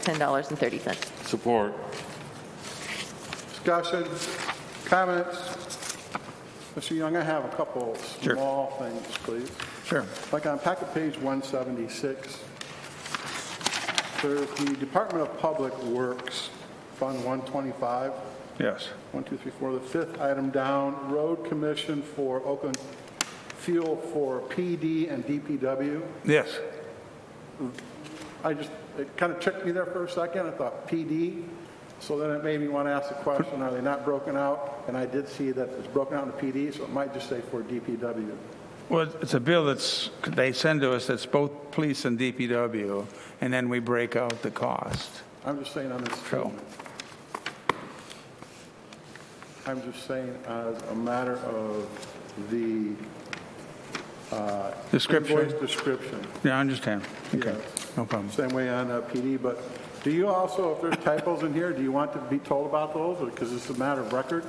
$1,610.30. Support. Discussion, comments? Mr. Young, I have a couple Sure. small things, please. Sure. Like on packet page 176, there's the Department of Public Works, Fund 125, Yes. one, two, three, four, the fifth item down, Road Commission for Oakland Fuel for PD and DPW. Yes. I just, it kind of tricked me there for a second, I thought PD, so then it made me want to ask the question, are they not broken out? And I did see that it's broken out into PD, so it might just say for DPW. Well, it's a bill that's, they send to us that's both police and DPW, and then we break out the cost. I'm just saying on this True. I'm just saying as a matter of the invoice Description? description. Yeah, I understand. Okay, Yes. no problem. Same way on uh, PD, but do you also, if there's typos in here, do you want to be told about those? Or, because it's a matter of record,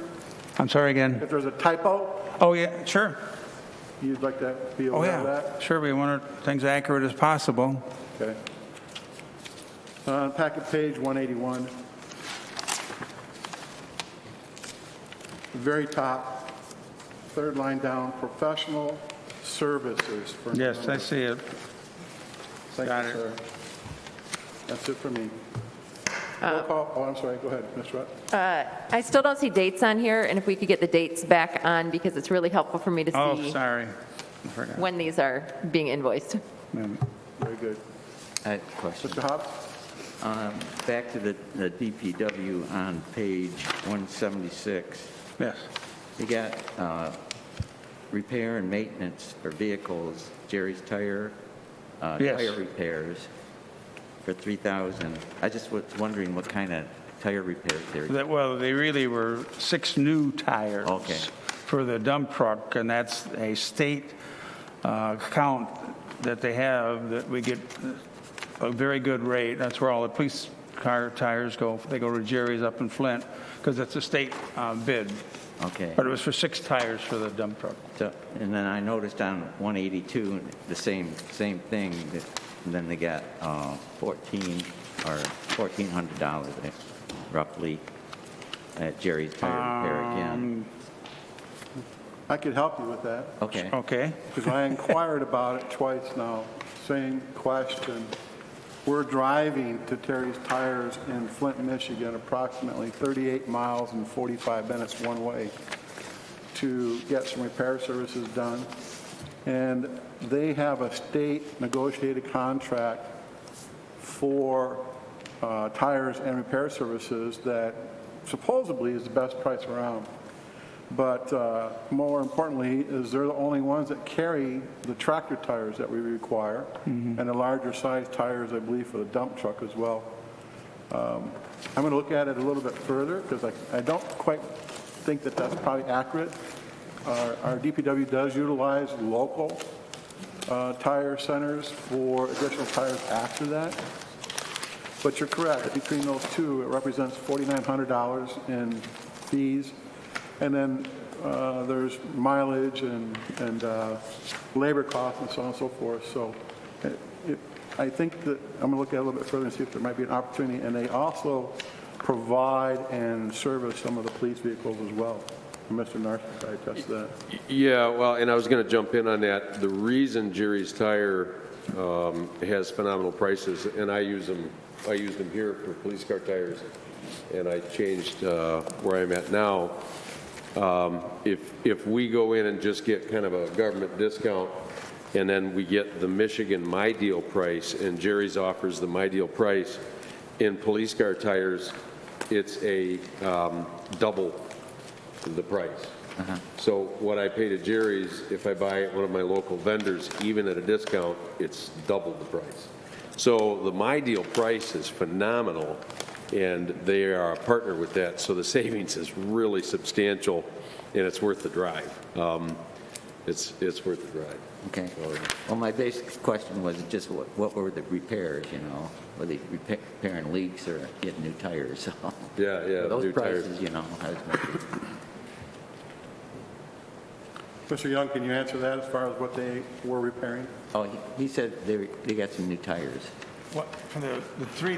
I'm sorry again. if there's a typo, Oh, yeah, sure. you'd like to be Oh, aware of that? yeah, sure, we want our things accurate as possible. Okay. Uh, Packet page 181. Very top, third line down, professional services for. Yes, I see it. got Thank you, it. sir. That's it for me. Roll call, oh, I'm sorry, go ahead, Ms. Rutt. Uh, I still don't see dates on here, and if we could get the dates back on, because it's really helpful for me to Oh, see sorry. I forgot. when these are being invoiced. Very good. I have a question. Mr. Hobbs? Um, Back to the the DPW on page 176. Yes, You got uh, repair and maintenance for vehicles, Jerry's Tire, uh, Yes. tire repairs for 3,000. I just was wondering what kind of tire repairs there. That- well, they really were six new tires. Okay. For the dump truck, and that's a state uh, count that they have, that we get a very good rate. That's where all the police car tires go, they go to Jerry's up in Flint, because it's a state uh, bid. Okay. But it was for six tires for the dump truck. So- And then I noticed on 182, the same, same thing, that- and then they got uh, 14, or $1,400 roughly at Jerry's Tire Repair again. I could help you with that, Okay, Okay, because I inquired about it twice now, same question. We're driving to Terry's Tires in Flint, Michigan, approximately 38 miles and 45 minutes one way to get some repair services done. And they have a state negotiated contract for uh, tires and repair services that supposedly is the best price around. But uh, more importantly, is they're the only ones that carry the tractor tires that we require, and the larger size tires, I believe, for the dump truck as well. Um, I'm going to look at it a little bit further, because I don't quite think that that's probably accurate. Our our DPW does utilize local uh, tire centers for additional tires after that. But you're correct, between those two, it represents $4,900 in fees. And then uh, there's mileage and, and uh, labor costs and so on and so forth. So uh, it- I think that, I'm going to look at it a little bit further and see if there might be an opportunity. And they also provide and service some of the police vehicles as well. And Mr. Narcisse, I attest to that. Yeah, well, and I was going to jump in on that. The reason Jerry's Tire um, has phenomenal prices, and I use them, I use them here for police car tires, and I changed uh, where I'm at now. Um, If, if we go in and just get kind of a government discount, and then we get the Michigan My Deal price, and Jerry's offers the My Deal price, in police car tires, it's a um, double the price. So what I pay to Jerry's, if I buy at one of my local vendors, even at a discount, it's double the price. So the My Deal price is phenomenal, and they are a partner with that, so the savings is really substantial, and it's worth the drive. Um, It's, it's worth the drive. okay. Well, my basic question was just what what were the repairs, you know? Were they repa- repairing leaks or getting new tires? So, Yeah, yeah. new Those tires. prices, you know, I was wondering. Mr. Young, can you answer that as far as what they were repairing? oh, he- he said they they got some new tires. What, for the, the three